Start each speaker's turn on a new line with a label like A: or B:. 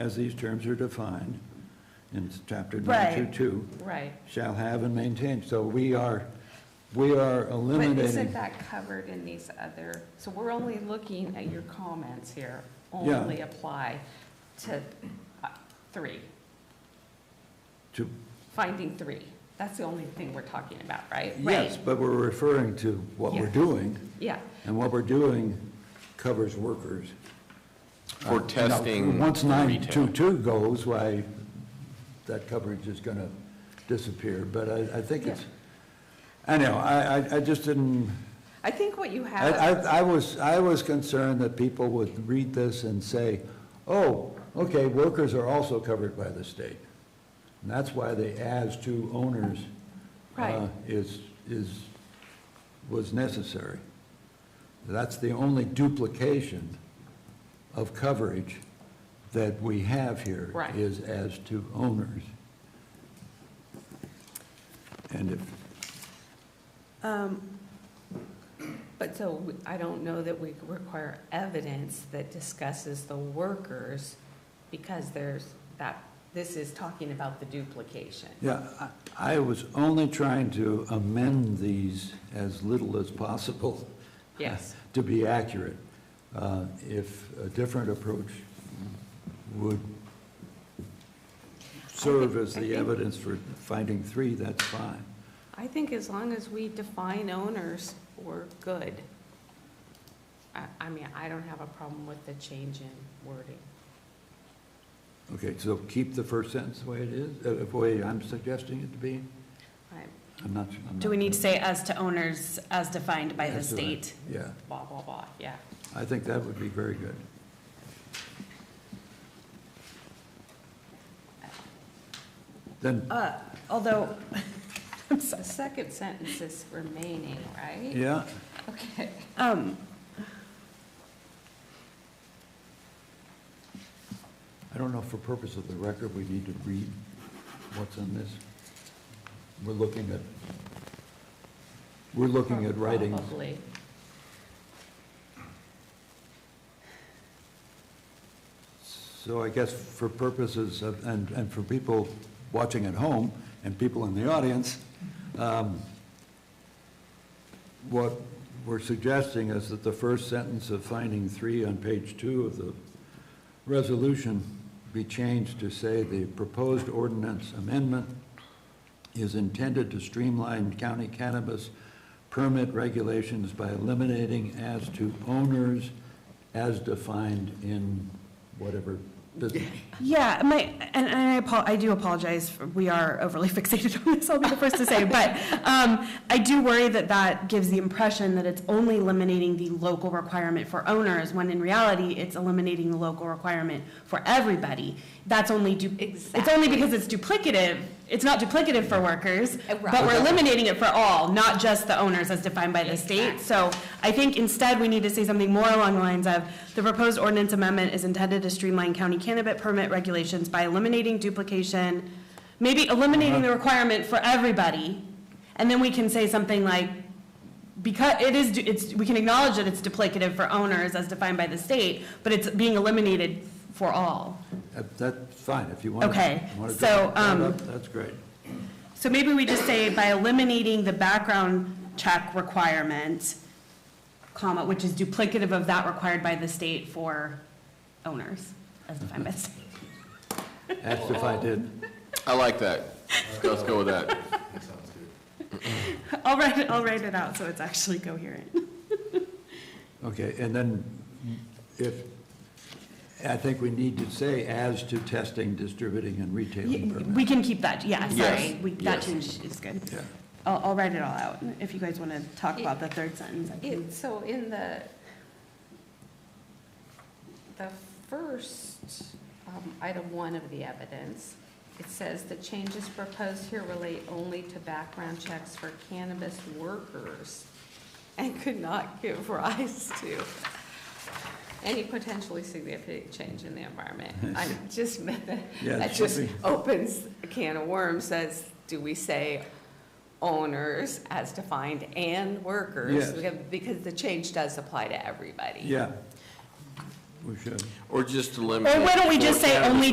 A: as these terms are defined in chapter
B: Right.
A: 922,
C: Right.
A: shall have and maintain. So we are, we are
C: But
A: eliminating.
C: isn't that covered in these other, so we're only looking at your comments here,
A: Yeah.
C: only apply to uh, three,
A: to-
C: finding three. That's the only thing we're talking about, right?
A: Yes, but we're referring to what we're
C: Yeah.
A: doing,
C: Yeah,
A: and what we're doing covers workers. Uh,
D: For
A: now,
D: testing
A: Once
D: retail.
A: 922 goes, why, that coverage is going to disappear, but I, I think it's, anyhow, I, I- I just didn't,
C: I think what you
A: I,
C: have,
A: I, I was, I was concerned that people would read this and say, oh, okay, workers are also covered by the state. And that's why the as to owners uh,
C: Right.
A: is, is, was necessary. That's the only duplication of coverage that we have here.
C: Right.
A: Is as to owners. And if,
C: um, but so we- I don't know that we require evidence that discusses the workers because there's that, this is talking about the duplication.
A: Yeah, I I was only trying to amend these as little as possible.
C: Yes.
A: To be accurate. Uh, If a different approach would serve as
C: I
A: the
C: think-
A: evidence for finding three, that's fine.
C: I think as long as we define owners, we're good. I, I mean, I don't have a problem with the change in wording.
A: Okay, so keep the first sentence the way it is, uh, the way I'm suggesting it to be?
C: Right,
A: I'm not. I'm
B: Do
A: not-
B: we need to say as to owners as defined by the
A: That's what I-
B: state?
A: Yeah,
C: Blah, blah, blah, yeah.
A: I think that would be very good. Then
B: Uh, Although, I'm
C: The
B: sorry.
C: second sentence is remaining, right?
A: Yeah,
C: Okay.
B: Um,
A: I don't know, for purpose of the record, we need to read what's in this. We're looking at, we're looking at writings.
C: Probably.
A: So I guess for purposes of, and, and for people watching at home and people in the audience, um, what we're suggesting is that the first sentence of finding three on page two of the resolution be changed to say the proposed ordinance amendment is intended to streamline county cannabis permit regulations by eliminating as to owners as defined in whatever uh, business.
B: yeah, my, and and I apo, I do apologize, we are overly fixated on this, I'll be the first to say, but um, I do worry that that gives the impression that it's only eliminating the local requirement for owners, when in reality, it's eliminating the local requirement for everybody. That's only, du- it's only
C: Exactly.
B: because it's duplicative, it's not duplicative for workers,
C: Uh, right.
B: but we're eliminating it for all, not just the owners as defined by the state. So I think instead, we need to say something more along the lines of, the proposed ordinance amendment is intended to streamline county cannabis permit regulations by eliminating duplication, maybe eliminating the requirement for everybody. And then we can say something like, because it is, it's, we can acknowledge that it's duplicative for owners as defined by the state, but it's being eliminated for all.
A: Uh, That's fine, if you want to.
B: Okay, so, um,
A: That's great.
B: So maybe we just say by eliminating the background check requirement, comma, which is duplicative of that required by the state for owners, as defined by the state.
A: Asked if I did.
D: I like that. Let's go with that.
B: I'll write it, I'll write it out so it's actually coherent.
A: Okay, and then if, I think we need to say as to testing, distributing, and retailing
B: We
A: permit.
B: can keep that, yeah, sorry,
D: Yes,
B: we, that
D: yes.
B: change is good.
A: Yeah.
B: I'll, I'll write it all out, if you guys want to talk about the third sentence. I can-
C: It, so in the, the first, um, item one of the evidence, it says the changes proposed here relate only to background checks for cannabis workers and could not give rise to any potentially significant change in the environment. I just meant that,
A: Yeah,
C: that
A: it should
C: just
A: be.
C: opens a can of worms, says, do we say owners as defined and workers?
A: Yes.
C: Because- Because the change does apply to everybody.
A: Yeah, we should.
D: Or just eliminate.
B: Or why don't we just
D: for
B: say
D: cannabis
B: only